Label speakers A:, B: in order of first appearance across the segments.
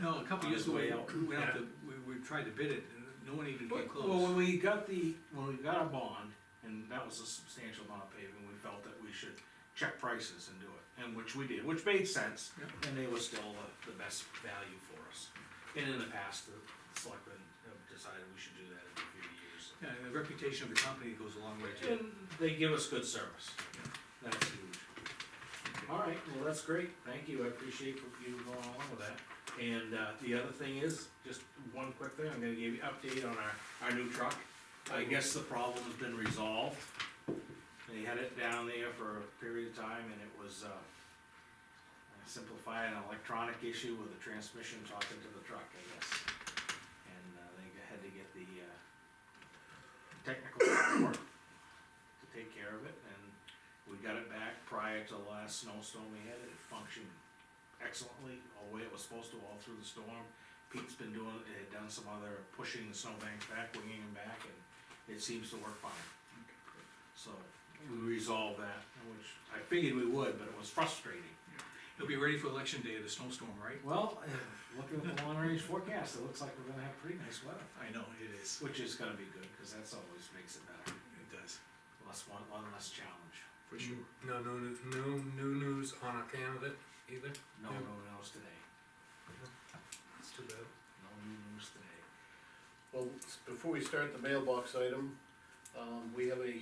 A: No, a couple
B: On
A: years
B: his
A: ago,
B: way
A: we
B: out.
A: we went out to, we, we tried to bid it, and no one even came
B: But- Well, when
A: close.
B: we got the, when we got a bond, and that was a substantial amount of paving, we felt that we should check prices and do it, and which we did, which made sense.
A: Yep.
B: And they were still the, the best value for us. And in the past, the selectmen have decided we should do that in a few years.
A: Yeah, and the reputation of the company goes a long way too.
B: And they give us good service. That's huge. All right, well, that's great, thank you, I appreciate you going along with that. And, uh, the other thing is, just one quick thing, I'm gonna give you update on our, our new truck. I guess the problem has been resolved. They had it down there for a period of time and it was, uh, simplify an electronic issue with the transmission talking to the truck, I guess. And, uh, they had to get the, uh, technical support to take care of it, and we got it back prior to the last snowstorm we had, it functioned excellently, all the way it was supposed to, all through the storm. Pete's been doing, had done some other pushing the snowbanks back, winging them back, and it seems to work fine. So, we resolved that, which I figured we would, but it was frustrating.
A: It'll be ready for election day, the snowstorm, right?
B: Well, eh, looking at the long range forecast, it looks like we're gonna have pretty nice weather,
A: I know, it is,
B: which is gonna be good, cause that's always makes it better,
A: it does,
B: less one, one less challenge.
A: for sure.
C: No, no, no, no new news on our candidate either.
B: No,
C: Yeah.
B: no one else today.
C: It's too bad.
B: No new news today.
D: Well, s- before we start the mailbox item, um, we have a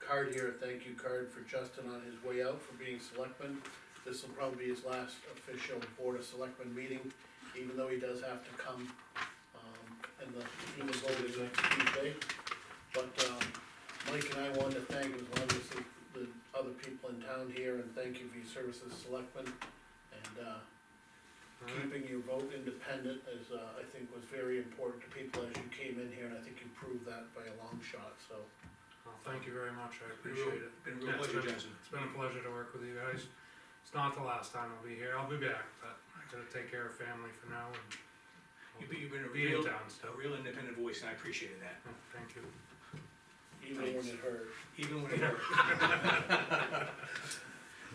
D: card here, a thank you card for Justin on his way out for being selectman. This will probably be his last official board of selectmen meeting, even though he does have to come, um, and the, he was voted next Tuesday. But, um, Mike and I wanted to thank, as well as the, the other people in town here, and thank you for your service as selectman. And, uh,
C: Alright,
D: keeping your vote independent is, uh, I think was very important to people as you came in here, and I think you proved that by a long shot, so.
C: well, thank you very much, I appreciate it.
A: Been a
C: Yeah,
A: real
C: it's
A: pleasure,
C: been-
A: Justin.
C: It's been a pleasure to work with you guys. It's not the last time I'll be here, I'll be back, but I gotta take care of family for now and. I'll
A: You've been, you've been a
C: Be in
A: real,
C: town
A: a
C: still.
A: real independent voice, and I appreciated that,
C: Yeah, Thank you.
D: Even when it hurt.
A: even when it hurt.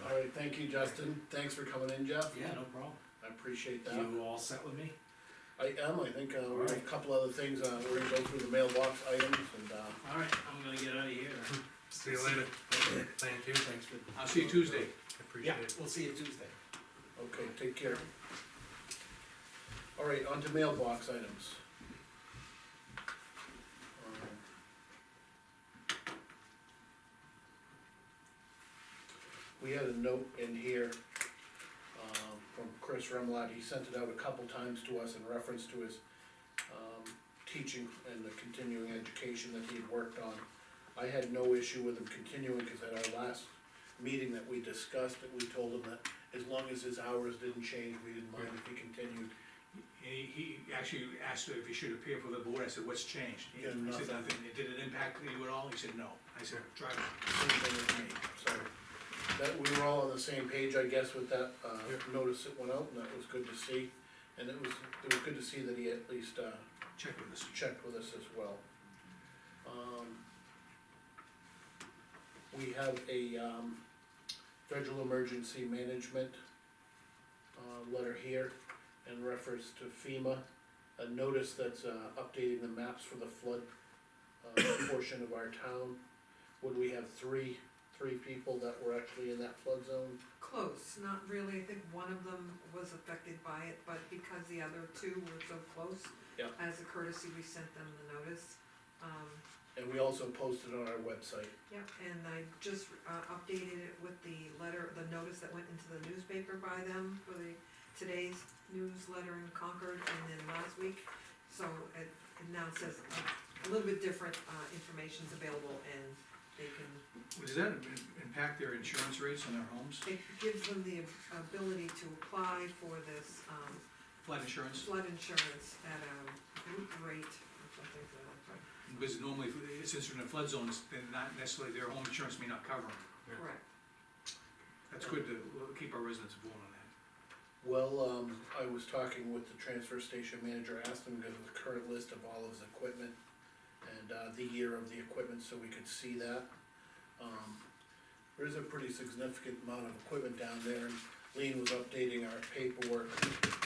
D: All right, thank you, Justin. Thanks for coming in, Jeff.
B: Yeah, no problem.
D: I appreciate that.
B: You all set with me?
D: I am, I think, uh, we have a
B: Alright.
D: couple other things, uh, we're gonna go through the mailbox items and, uh,
B: All right, I'm gonna get out of here.
C: See you later. Thank you,
D: thanks for.
A: I'll see you Tuesday.
C: appreciate it.
B: we'll see you Tuesday.
D: Okay, take care. All right, on to mailbox items. Um, We had a note in here, um, from Chris Remlott, he sent it out a couple times to us in reference to his, um, teaching and the continuing education that he had worked on. I had no issue with him continuing, cause at our last meeting that we discussed, that we told him that as long as his hours didn't change, we didn't mind if he continued.
A: He, he actually asked if he should appear for the board, I said, what's changed? He
D: Yeah,
A: he said,
D: nothing.
A: nothing, did it impact you at all? He said, no. I said, drive on.
D: Same thing with me, so. That, we were all on the same page, I guess, with that, uh,
C: Yeah.
D: notice that went out, and that was good to see. And it was, it was good to see that he at least, uh,
A: check with us.
D: checked with us as well. Um, We have a, um, federal emergency management, uh, letter here in reference to FEMA. A notice that's, uh, updating the maps for the flood, uh, portion of our town. Would we have three, three people that were actually in that flood zone?
E: Close, not really, I think one of them was affected by it, but because the other two were so close.
D: Yeah.
E: As a courtesy, we sent them the notice, um,
D: And we also posted on our website.
E: yeah, and I just, uh, updated it with the letter, the notice that went into the newspaper by them for the, today's newsletter in Concord, and then last week. So it, it now says uh, a little bit different, uh, information's available, and they can
A: Does that im- impact their insurance rates on their homes,
E: it gives them the ability to apply for this um,
A: flood insurance?
E: flood insurance at a group rate or something for that,
A: Because normally, if- since they're in a flood zone, it's- they're not necessarily, their home insurance may not cover them.
E: correct.
A: That's good to keep our residents informed on that.
D: Well, um, I was talking with the transfer station manager, asked him to give the current list of all of his equipment and, uh, the year of the equipment, so we could see that. Um, there is a pretty significant amount of equipment down there, and Lean was updating our paperwork